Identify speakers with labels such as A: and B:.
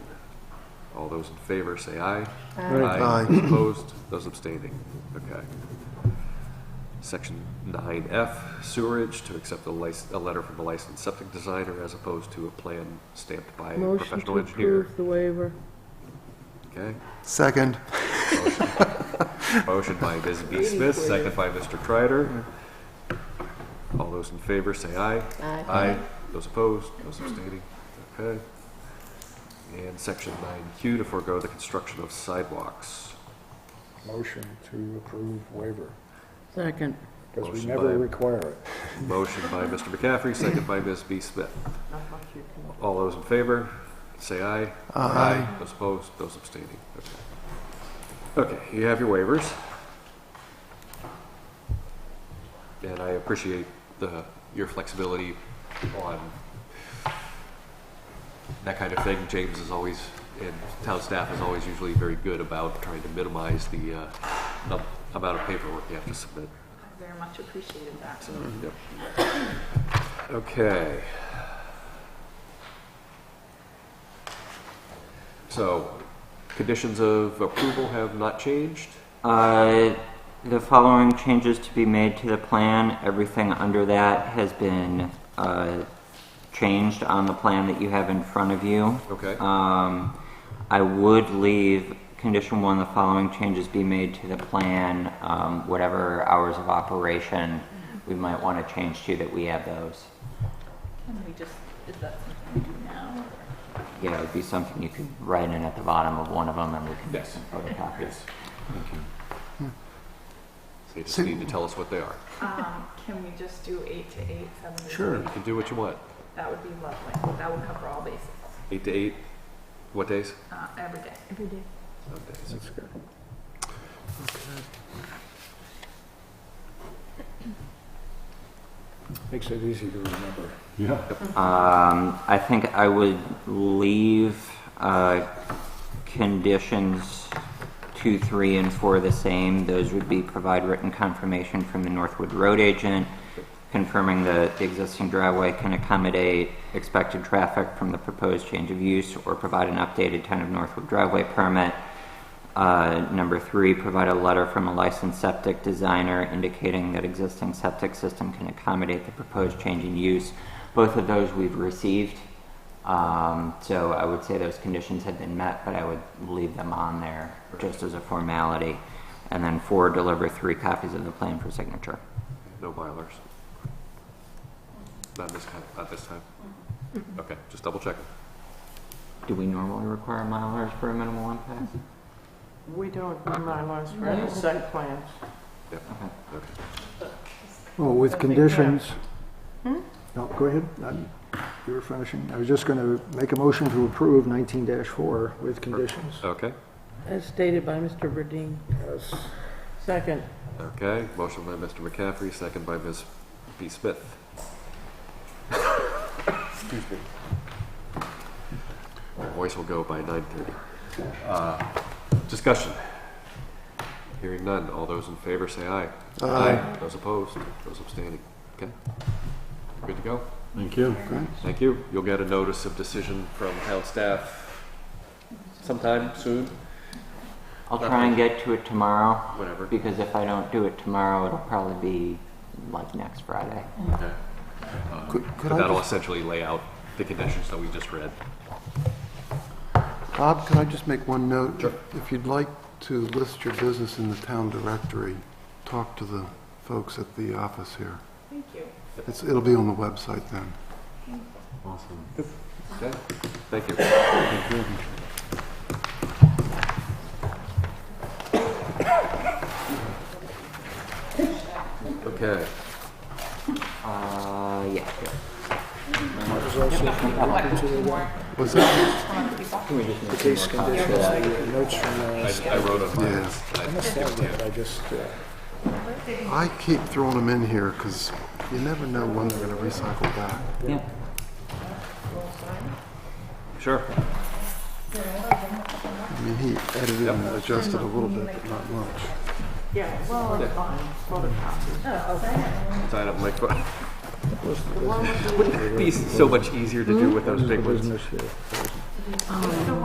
A: All those in favor, say aye.
B: Aye.
A: Opposed, those abstaining. Okay. Section 9F, sewerage, to accept a lic- a letter from a licensed septic designer as opposed to a plan stamped by a
C: Motion to
A: professional engineer.
C: approve the waiver.
A: Okay.
B: Second.
A: Motion by Ms. B. Smith, second by Mr. Kreider. All those in favor, say aye.
C: Aye.
A: Those opposed, those abstaining, okay. And section nine Q to forego the construction of sidewalks.
D: Motion to approve waiver,
C: Second.
D: because we
A: Motion
D: never
A: by-
D: require it.
A: Motion by Mr. McCaffrey, second by Ms. B. Smith. All those in favor, say aye. Those opposed, those abstaining, okay. Okay, you have your waivers. And I appreciate the, your flexibility on that kind of thing. James is always, and town staff is always usually very good about trying to minimize the, uh, num- amount of paperwork you have to submit.
E: Very much appreciated that.
A: So, yep. Okay. So, conditions of approval have not changed?
F: Uh, the following changes to be made to the plan. Everything under that has been uh, changed on the plan that you have in front of you.
A: Okay.
F: Um, I would leave condition one, the following changes be made to the plan, um, whatever hours of operation we might want to change to that we have those.
E: And we just, is that something we do now? or-
F: Yeah, it would be something you could write in at the bottom of one of them and we can get
A: Yes.
F: some photocopies.
A: Thank you. So you just need to tell us what they are.
E: Um, Can we just do eight to eight, seven to eight?
A: You can do what you want.
E: That would be lovely. That would cover all bases,
A: Eight to eight, what days?
E: uh, every day. Every day.
A: Some days.
D: Makes it easy to remember.
F: Um, I think I would leave, uh, conditions two, three, and four the same. Those would be provide written confirmation from the Northwood Road agent confirming that the existing driveway can accommodate expected traffic from the proposed change of use or provide an updated town of Northwood driveway permit. Uh, number three, provide a letter from a licensed septic designer indicating that existing septic system can accommodate the proposed change in use. Both of those we've received. Um, so I would say those conditions have been met, but I would leave them on there just as a formality. And then four, deliver three copies of the plan for signature.
A: No milers? Not this time, not this time? Okay, just double checking.
F: Do we normally require milers for a minimal impact?
G: We don't do Mylars for any site plans.
A: Yep,
F: Okay.
A: okay.
D: Well, with conditions. No, go ahead. I'm- You were finishing. I was just going to make a motion to approve 19-4 with conditions.
A: Okay,
C: As stated by Mr. Burdine.
D: Yes.
C: Second.
A: okay. Motion by Mr. McCaffrey, second by Ms. B. Smith. Excuse me. My voice will go by nine thirty. Uh, Discussion. Hearing none. All those in favor say aye.
B: Uh,
A: Aye. Those opposed, those abstaining. Okay. Good to go.
B: Thank you.
A: Thank you. You'll get a notice of decision from town staff sometime soon,
F: I'll try and get to it tomorrow,
A: whatever.
F: because if I don't do it tomorrow, it'll probably be like next Friday.
A: Okay.
B: Could could
A: But
B: I,
A: that'll
B: just-
A: essentially lay out the conditions that we just read.
B: Bob, could I just make one note? If you'd like to list your business in the town directory, talk to the folks at the office here.
E: Thank you.
B: It's, it'll be on the website then.
A: Okay, thank you. Okay,
F: Uh, yeah.
B: Was that,
D: The case conditions, the notes from
A: I,
D: last.
A: I wrote on mine.
B: Yeah.
A: I-
D: I must have that. I just, uh,
B: I keep throwing them in here because you never know when they're going to recycle back.
F: Yeah.
A: Sure,
B: I mean, he edited and adjusted a little bit, but not much.
G: Yeah, well, it's fine, photocopies.
A: sign up my phone.
G: The one with the
A: It'd be so much easier to do with those big ones.
D: business here.